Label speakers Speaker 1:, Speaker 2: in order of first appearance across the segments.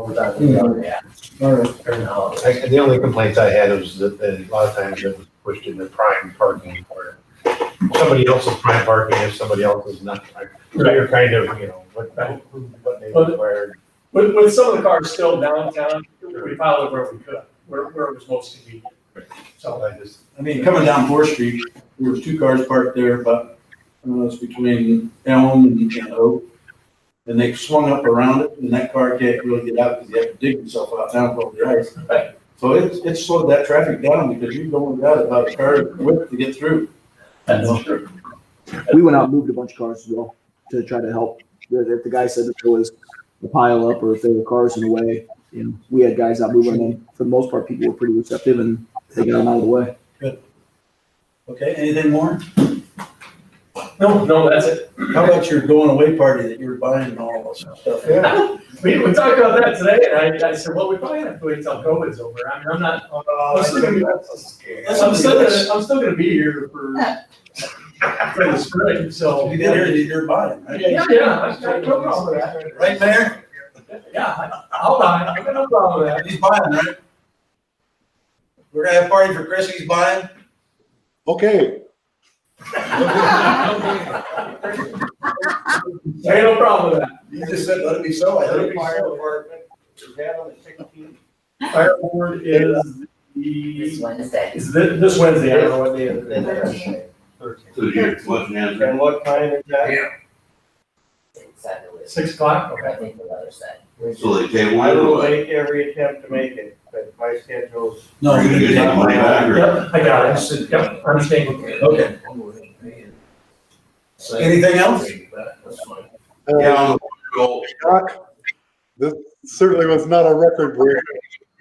Speaker 1: overtime is done at,
Speaker 2: All right,
Speaker 1: or no.
Speaker 3: I- The only complaints I had was that, that a lot of times it was pushed into prime parking or somebody else's prime parking if somebody else is not. prime. So you're kind of, you know, what, what they required.
Speaker 4: With, with some of the cars still downtown, we piled it where we could, where, where it was most convenient.
Speaker 3: So I just,
Speaker 2: I mean, coming down Fourth Street, there was two cars parked there, but I don't know, it's between Elm and and Oak. And they swung up around it, and that car can't really get out because you have to dig yourself out down below the ice.
Speaker 4: Right.
Speaker 2: So it's, it slowed that traffic down because you're going without about a car width to get through.
Speaker 4: That's true.
Speaker 5: we went out and moved a bunch of cars as well to try to help. If if the guy said that there was a pile up or if there were cars in the way, you know, we had guys out moving them. For the most part, people were pretty receptive and they got them out of the way.
Speaker 2: Okay, anything more?
Speaker 4: No, no, that's it.
Speaker 2: How about your going away party that you were buying and all this stuff?
Speaker 3: yeah,
Speaker 4: We, we talked about that today, and I, I said, well, we probably have to wait till COVID's over. I mean, I'm not,
Speaker 2: Uh, Oh,
Speaker 4: I'm still gonna, be- I'm still gonna, I'm still gonna be here for, for the spring, so.
Speaker 2: You did hear that you're buying, right?
Speaker 4: Yeah, yeah, I I have no problem with that.
Speaker 2: Right, Mayor?
Speaker 4: Yeah, I- I'll buy it. I got no problem with that.
Speaker 2: He's buying, right? We're gonna have a party for Chris, he's buying.
Speaker 6: Okay,
Speaker 4: I got no problem with that.
Speaker 2: You just said, let it be so, I
Speaker 4: Let
Speaker 2: hope.
Speaker 4: it be so.
Speaker 1: department, is that on the sixteenth?
Speaker 4: Fire board is
Speaker 7: This
Speaker 4: the,
Speaker 7: Wednesday.
Speaker 4: is thi- this Wednesday, I don't know what day it is.
Speaker 1: Thirteenth.
Speaker 8: So you're looking at it.
Speaker 1: And what time is that?
Speaker 7: Exactly.
Speaker 4: Six o'clock,
Speaker 7: I
Speaker 4: okay.
Speaker 7: think the weather said.
Speaker 8: so they can't
Speaker 1: I
Speaker 8: wait
Speaker 1: will
Speaker 8: away.
Speaker 1: make every attempt to make it, but my schedule's.
Speaker 2: No.
Speaker 8: You're gonna get that money back or-
Speaker 4: Yep, I got it. Yep, I understand.
Speaker 2: Okay. Anything else?
Speaker 8: Yeah,
Speaker 6: uh,
Speaker 8: I'm go
Speaker 6: Scott, this certainly was not a record breaker.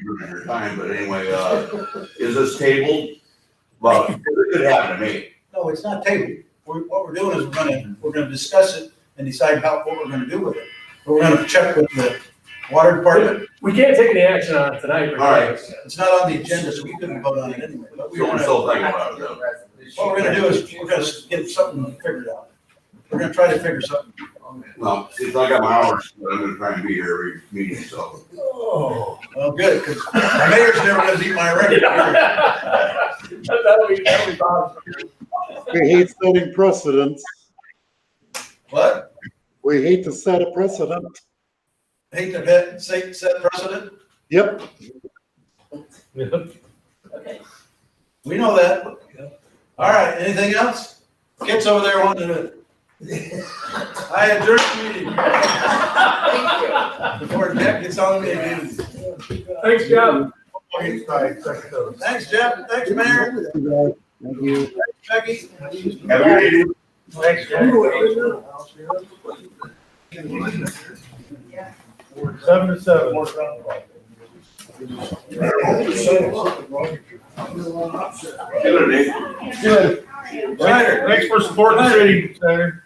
Speaker 8: your time, but anyway, uh, is this tabled? But it could happen to me.
Speaker 2: No, it's not tabled. We're, what we're doing is we're gonna, we're gonna discuss it and decide how, what we're gonna do with it. We're gonna check with the water department.
Speaker 4: We can't take any action on it tonight.
Speaker 8: All right.
Speaker 2: It's not on the agenda, so we couldn't vote on it anyway, but we
Speaker 8: So we're
Speaker 2: wanna, Oh, what
Speaker 8: still thinking about it though.
Speaker 2: we're gonna do is, we're gonna get something figured out. We're gonna try to figure something.
Speaker 8: No, since I got my hours, but I'm gonna try and be here every meeting, so.
Speaker 2: Oh. Well, good, because the mayor's never gonna beat my record.
Speaker 4: That'll be, that'll be Bob's.
Speaker 6: We hate setting precedents.
Speaker 2: What?
Speaker 6: We hate to set a precedent.
Speaker 2: Hate to bet, set, set precedent?
Speaker 6: Yep,
Speaker 2: We know that. All right, anything else? Kids over there wanting to. I adjourn the meeting. Before Jeff gets on the meeting.
Speaker 4: Thanks, Jeff.
Speaker 3: okay, sorry, second those.
Speaker 2: Thanks, Jeff. Thanks, Mayor.
Speaker 5: Thank you.
Speaker 2: Becky.
Speaker 8: Have a good evening.
Speaker 1: Next. Seven to seven.
Speaker 8: Have a good day.
Speaker 1: Good.
Speaker 2: Later.
Speaker 1: Thanks for supporting the city, Senator.